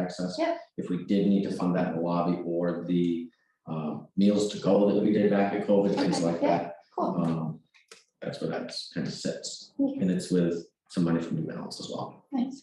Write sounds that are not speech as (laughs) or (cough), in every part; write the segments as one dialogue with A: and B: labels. A: access.
B: Yep.
A: If we did need to fund that in the lobby or the um, meals to go that we did back at COVID, things like
B: Okay, yeah.
A: that.
B: Cool,
A: Um, That's where that's kind of sits.
B: Okay.
A: And it's with some money from New Balance as well.
B: nice.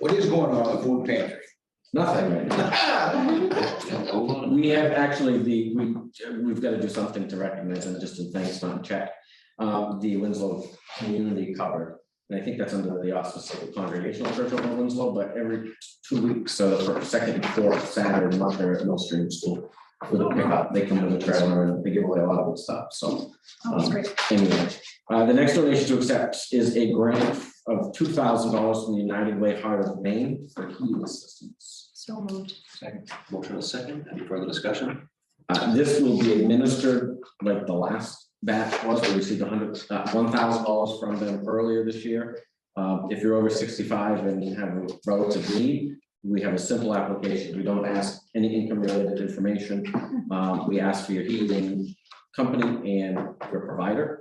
C: What is going on in the food pantry? (laughs)
A: Nothing right now. We have actually the, we, we've got to do something to recognize and just in thanks on check. Um, the Winslow Community Cupboard, and I think that's under the auspices of the Congregational Church of Winslow, but every two weeks, so the first, second, and fourth Saturday, and Monday at Mill Stream School. With a pickup, they come with a trailer and they give away a lot of good stuff, so.
B: Oh, that's great.
A: Anyway, uh, the next donation to accept is a grant of two thousand dollars from the United Way Heart of Maine for heating assistance.
B: So moved.
D: Second. Motion is second. Any further discussion?
A: Uh, this will be administered like the last batch was, we received hundred, uh, one thousand dollars from them earlier this year. Uh, if you're over sixty-five and you have a relative need, we have a simple application. We don't ask any income-related information. Um, we ask for your heating company and your provider.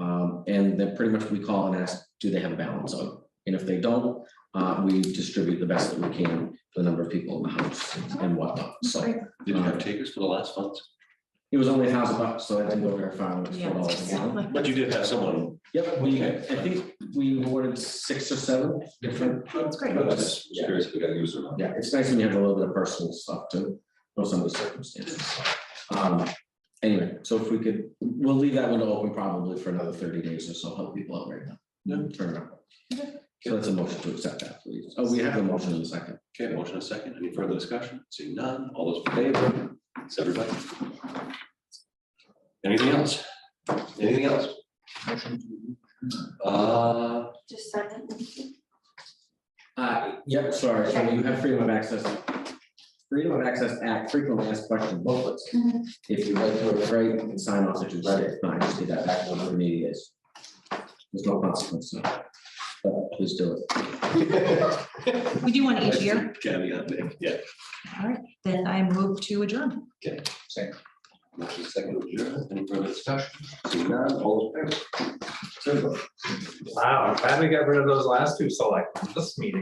A: Um, and then pretty much we call and ask, do they have a balance on? it? And if they don't, uh, we distribute the best that we can for the number of people in the house and whatnot, so.
B: Great.
D: Did you have takers for the last funds?
A: It was only a thousand bucks, so I didn't go very far, it was four dollars a gallon.
D: But you did have someone.
A: Yep, we, I think we awarded six or seven different,
D: That's
B: great.
D: I was just curious if we got a user or not.
A: yeah, it's nice when you have a little bit of personal stuff to know some of the circumstances. Um, anyway, so if we could, we'll leave that window open probably for another thirty days or so, help people out right now.
D: Yeah.
A: Turn it up. So that's a motion to accept that, please. Oh, we have a motion in a second.
D: Okay, motion is second. Any further discussion? Seeing none. All those in favor? It's everybody. Anything else? Anything else? Uh,
B: Just second.
A: Uh, yep, sorry, so you have freedom of access. Freedom of Access Act frequently asked question booklets.
B: Mhm.
A: If you read through it, great, you can sign off that you read it, fine, just get that back to whatever meeting it is. There's no consequence, no. But please do it.
E: We do one each year,
D: Caveat there, yeah.
E: then I move to adjourn.
D: Motion is second. to adjourn. Any further discussion? Seeing none. All those in favor? It's everybody.
F: Wow, I'm glad we got rid of those last two select, this meeting.